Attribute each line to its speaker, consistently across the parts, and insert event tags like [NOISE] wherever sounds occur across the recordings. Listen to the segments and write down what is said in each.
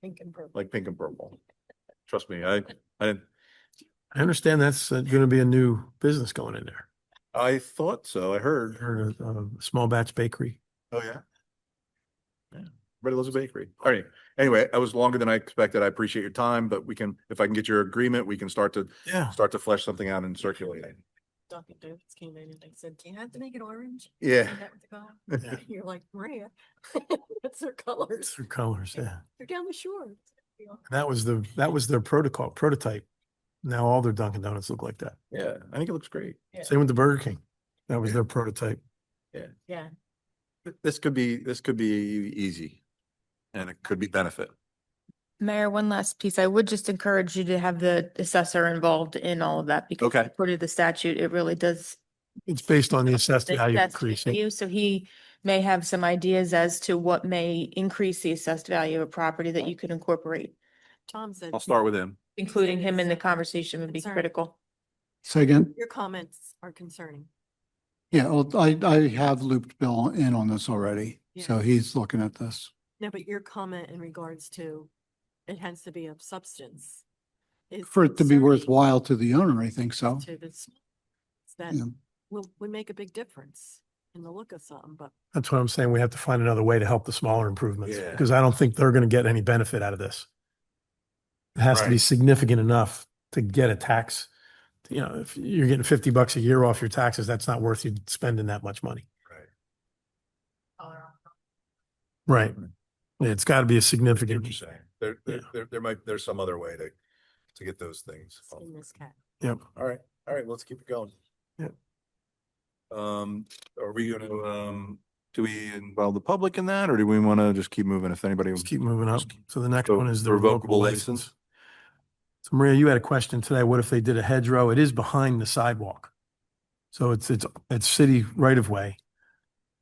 Speaker 1: Pink and purple.
Speaker 2: like pink and purple. Trust me, I, I, I understand that's uh, gonna be a new business going in there. I thought so, I heard.
Speaker 3: Heard of, uh, small batch bakery.
Speaker 2: Oh, yeah? Yeah, Red Elizabeth Bakery. All right, anyway, that was longer than I expected. I appreciate your time, but we can, if I can get your agreement, we can start to,
Speaker 3: Yeah.
Speaker 2: start to flesh something out and circulate it.
Speaker 1: Dunkin' Donuts came in and they said, do you have to make it orange?
Speaker 2: Yeah.
Speaker 1: Is that what they call it?"
Speaker 3: Yeah.
Speaker 1: [LAUGHS] You're like, Maria, that's their colors.
Speaker 3: Through colors, yeah.
Speaker 1: They're down the shore. You know,
Speaker 3: That was the, that was their protocol, prototype. Now all their Dunkin' Donuts look like that.
Speaker 2: Yeah, I think it looks great.
Speaker 1: Yeah.
Speaker 3: Same with the Burger King. That was their prototype.
Speaker 1: Yeah,
Speaker 2: Th- This could be, this could be easy and it could be benefit.
Speaker 4: Mayor, one last piece. I would just encourage you to have the assessor involved in all of that because
Speaker 2: Okay.
Speaker 4: according to the statute, it really does.
Speaker 3: It's based on the assessed
Speaker 4: the
Speaker 3: value
Speaker 4: assessed
Speaker 3: increase. it.
Speaker 4: value. So he may have some ideas as to what may increase the assessed value of property that you could incorporate.
Speaker 1: Tom said.
Speaker 2: I'll start with him.
Speaker 4: Including him in the conversation would be
Speaker 1: Concern.
Speaker 4: critical.
Speaker 5: Say again?
Speaker 1: Your comments are concerning.
Speaker 5: Yeah, well, I, I have looped Bill in on this already,
Speaker 1: Yeah.
Speaker 5: so he's looking at this.
Speaker 1: No, but your comment in regards to it has to be of substance. is
Speaker 5: For it to be
Speaker 1: concerning
Speaker 5: worthwhile to the owner, I think so.
Speaker 1: To this, that
Speaker 5: Yeah.
Speaker 1: will, would make a big difference in the look of something, but
Speaker 3: That's what I'm saying. We have to find another way to help the smaller improvements
Speaker 2: Yeah.
Speaker 3: because I don't think they're going to get any benefit out of this. It has to be
Speaker 2: Right.
Speaker 3: significant enough to get a tax. You know, if you're getting 50 bucks a year off your taxes, that's not worth you spending that much money. Right. It's got to be a significant.
Speaker 2: There,
Speaker 3: there-
Speaker 2: there, there might, there's some other way to, to get those things.
Speaker 1: in this cat.
Speaker 3: Yep.
Speaker 2: All right, all right, let's keep it going.
Speaker 3: Yeah.
Speaker 2: Um, are we gonna, um, do we involve the public in that, or do we wanna just keep moving if anybody?
Speaker 3: Let's keep moving up. So the next
Speaker 2: So,
Speaker 3: one is the
Speaker 2: revocable
Speaker 3: revocable
Speaker 2: license.
Speaker 3: license. So Maria, you had a question today. What if they did a hedgerow? It is behind the sidewalk. So it's, it's, it's city right of way.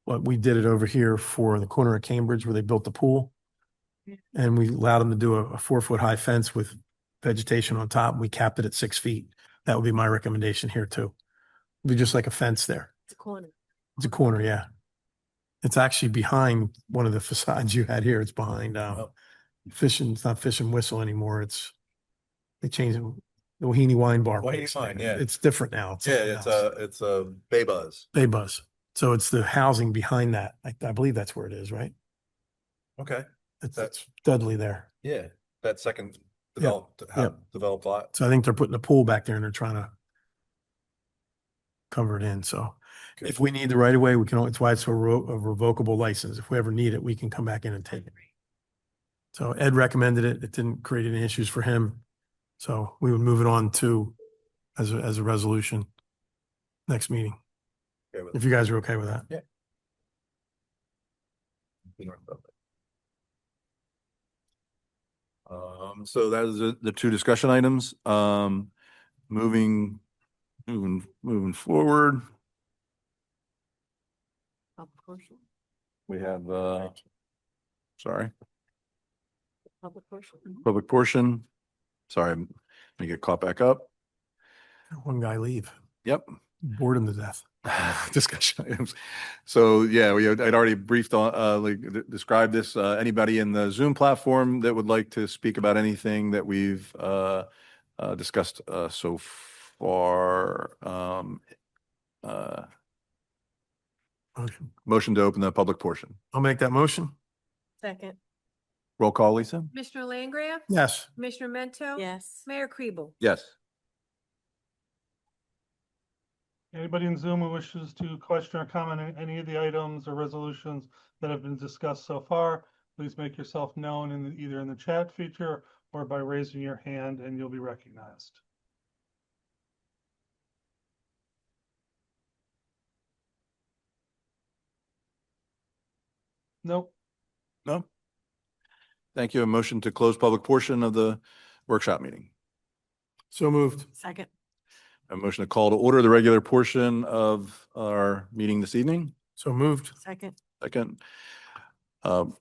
Speaker 3: But we did it over here for the corner of Cambridge where they built the pool. And we allowed them to do a, a four foot high fence with vegetation on top. We capped it at six feet. That would be my recommendation here too. It'd be just like a fence there.
Speaker 1: It's a corner.
Speaker 3: It's a corner, yeah. It's actually behind one of the [LAUGHS] facades you had here. It's behind, uh,
Speaker 2: Oh.
Speaker 3: fishing, it's not Fish and Whistle anymore. It's, they changed it, the Wahini Wine Bar.
Speaker 2: Wahine
Speaker 3: place
Speaker 2: Wine,
Speaker 3: now.
Speaker 2: yeah.
Speaker 3: It's different now. something else.
Speaker 2: it's uh, a Bay Buzz.
Speaker 3: Bay Buzz. So it's the housing behind that. I, I believe that's where it is, right?
Speaker 2: Okay,
Speaker 3: It's
Speaker 2: That's-
Speaker 3: Dudley there.
Speaker 2: yeah, that second
Speaker 3: developed- ha- yeah.
Speaker 2: developed lot.
Speaker 3: So I think they're putting a pool back there and they're trying to cover it in. So if we need the right of way, we can, al- it's why it's a revo- a revocable license. If we ever need it, we can come back in and take it. So Ed recommended it. It didn't create any issues for him. So we would move it on to as a, as a resolution next meeting, if you guys are okay with that.
Speaker 2: Um, so that is the- the two discussion items. Um, moving, moving, moving forward,
Speaker 1: Pub commercial,
Speaker 2: we have, uh, sorry,
Speaker 1: public commercial.
Speaker 2: public portion. Sorry, I'm gonna get caught back up.
Speaker 3: One guy leave,
Speaker 2: Yep. [LAUGHS]
Speaker 3: bored him to death.
Speaker 2: discussion items. So yeah, we, had- I'd already briefed on, uh, like d- described this, uh, anybody in the Zoom platform that would like to speak about anything that we've, uh, uh, discussed, uh, so far, um, uh,
Speaker 3: Motion.
Speaker 2: motion to open the public portion.
Speaker 3: I'll make that motion.
Speaker 1: Second,
Speaker 2: Roll call, Lisa?
Speaker 6: Commissioner Langgraf?
Speaker 3: Yes.
Speaker 6: Commissioner Mento?
Speaker 1: yes.
Speaker 6: Mayor Kribel?
Speaker 2: Yes.
Speaker 7: Anybody in Zoom who wishes to question or comment on any of the items or resolutions that have been discussed so far, please make yourself known in the, either in the chat feature or by raising your hand and you'll be recognized. Nope.
Speaker 2: No? Thank you. A motion to close public portion of the workshop meeting.
Speaker 3: So moved.
Speaker 1: Second,
Speaker 2: A motion to call to order the regular portion of our meeting this evening.
Speaker 3: So moved.
Speaker 1: second,
Speaker 2: Second. Um,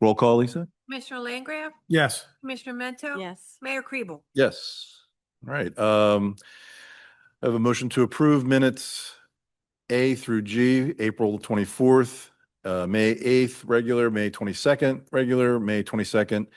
Speaker 2: Roll call, Lisa?
Speaker 6: Commissioner Langgraf?
Speaker 3: Yes.
Speaker 6: Commissioner Mento?
Speaker 1: yes.
Speaker 6: Mayor Kribel?
Speaker 2: Yes. All right. um, I have a motion to approve minutes A through G, April 24th, uh, May 8th, regular, May 22nd, regular, May 22nd,